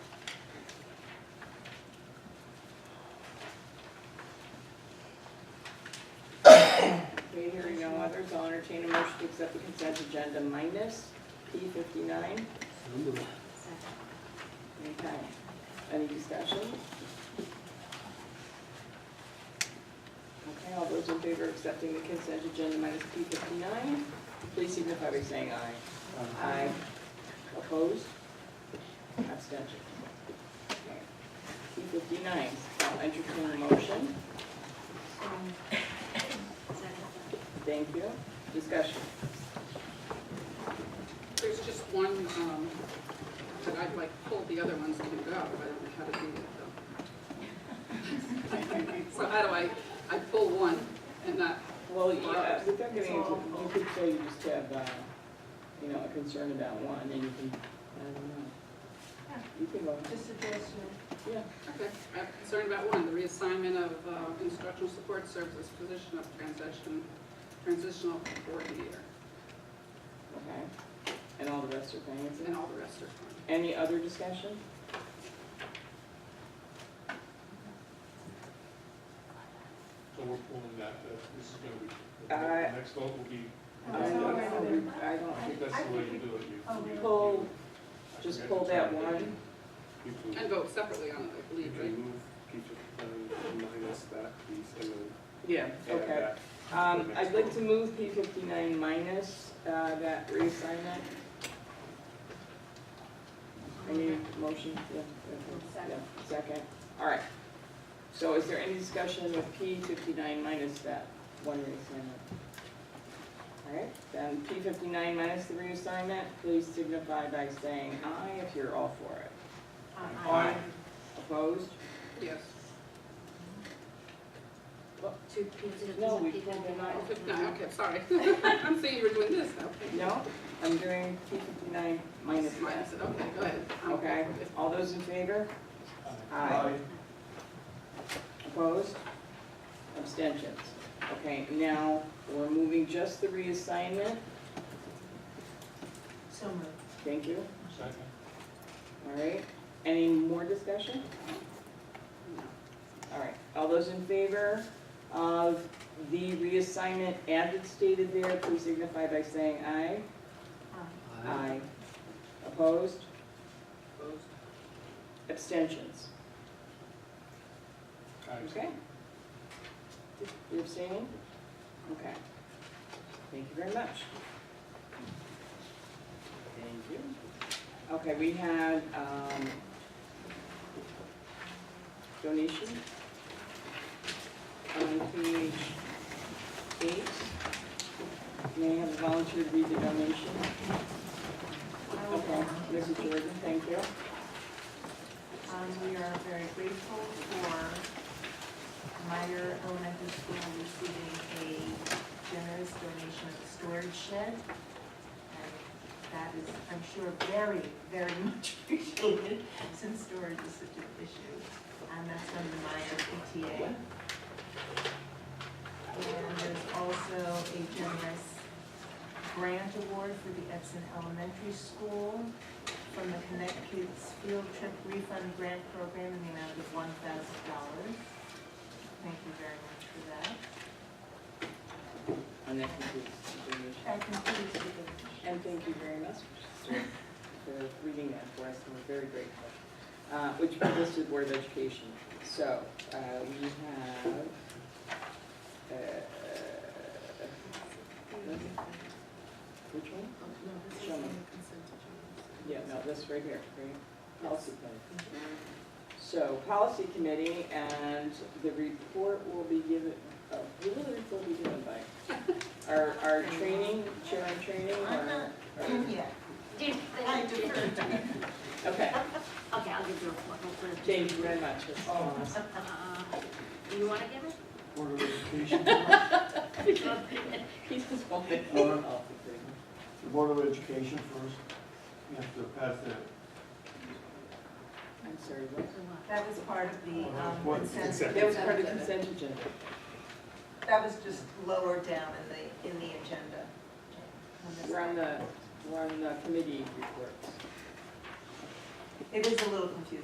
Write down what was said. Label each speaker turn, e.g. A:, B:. A: Hearing no others, I'll entertain a motion to accept the consent agenda minus P fifty-nine.
B: So moved.
A: Okay, any discussion? Okay, all those in favor of accepting the consent agenda minus P fifty-nine, please signify by saying aye. Aye. Opposed? Abstention. P fifty-nine, I'll entertain a motion. Thank you. Discussion.
C: There's just one, um, that I'd like pulled, the other ones can go, I don't know how to do that though. So how do I, I pull one and not,
A: Well, yeah, without getting into, you could say you just have, uh, you know, a concern about one, and you can, I don't know. You can go,
D: Just address
A: yeah,
C: okay, I'm concerned about one, the reassignment of uh, instructional support services position of transition, transitional coordinator,
A: okay. And all the rest are
C: and
A: things.
C: all the rest are fine.
A: Any other discussion?
E: So we're pulling that, uh, this is gonna be,
A: Uh,
E: the next vote will be,
A: I
D: No,
E: I
A: don't-
D: no, no, no.
A: I
E: I think
A: don't,
E: that's the way you do it.
D: Oh,
E: You- you-
A: pull,
E: I
A: just
E: forget
A: pull
E: the
A: that
E: term, but you-
A: one,
E: You
C: And
E: can,
C: vote separately on it, I
E: you
C: believe, right?
E: can move, keep it, um, minus that piece and then
A: yeah,
E: add
A: okay.
E: that.
A: Um, I'd like to move P fifty-nine minus, uh, that reassignment. Any motion? Yeah, yeah, yeah, Second, all right. So is there any discussion with P fifty-nine minus that one reassignment? All right, then P fifty-nine minus the reassignment, please signify by saying aye if you're all for it.
D: Aye.
A: Opposed?
C: Yes.
D: Two pieces of.
A: No, we pulled them
C: Oh,
A: out.
C: fifty-nine, okay, sorry. I'm seeing you were doing this, okay.
A: No, I'm doing P fifty-nine minus that.
C: Minus it, okay, go ahead. I'm
A: Okay, all those in favor? Aye. Opposed? Abstentions? Okay, now, we're moving just the reassignment,
D: So moved.
A: thank you,
E: Second.
A: all right? Any more discussion?
C: No.
A: All right, all those in favor of the reassignment as it's stated there, please signify by saying aye. Opposed?
C: Opposed?
A: Abstentions?
E: Aye.
A: Okay. You abstaining? Okay. Thank you very much. Thank you. Okay, we had, um, donation on page eight. May I have a volunteer to read the donation? Okay, Mrs. Jordan, thank you.
D: Um, we are very grateful for Meyer Elementary School receiving a generous donation of a storage shed. And that is, I'm sure, very, very much appreciated since storage is such an issue. And that's from the Meyer PTA. And there's also a generous grant award for the Edson Elementary School from the Connect Kids Field Trip Refund Grant Program in the amount of one thousand dollars. Thank you very much for that.
A: And that concludes the donation.
D: That concludes the.
A: And thank you very much for reading that for us, and we're very grateful. Uh, Which brings us to the Board of Education. So uh, we have, uh, which one? Show me. Yeah, no, this right here, right? Policy Committee. So Policy Committee, and the report will be given, uh, who will the report be given by? Our, our training, chair and training? or-
D: I'm not-
A: or-
D: Yeah,
F: Did-
D: I deferred.
A: Okay,
F: Okay, I'll give you a report. I'll put it-
A: thank you very much. It's awesome.
F: Uh, Do you want to give it?
B: Board of Education,
A: He's just wanting.
B: Uh, the Board of Education first, you have to pass that.
A: I'm sorry, what?
D: that was part of the um,
B: What?
D: consent.
E: Consent.
A: That Oh, was part of the consent agenda.
D: That was just lower down in the, in the agenda. On this
A: We're on
D: one.
A: the, we're on the committee reports.
D: It is a little confusing.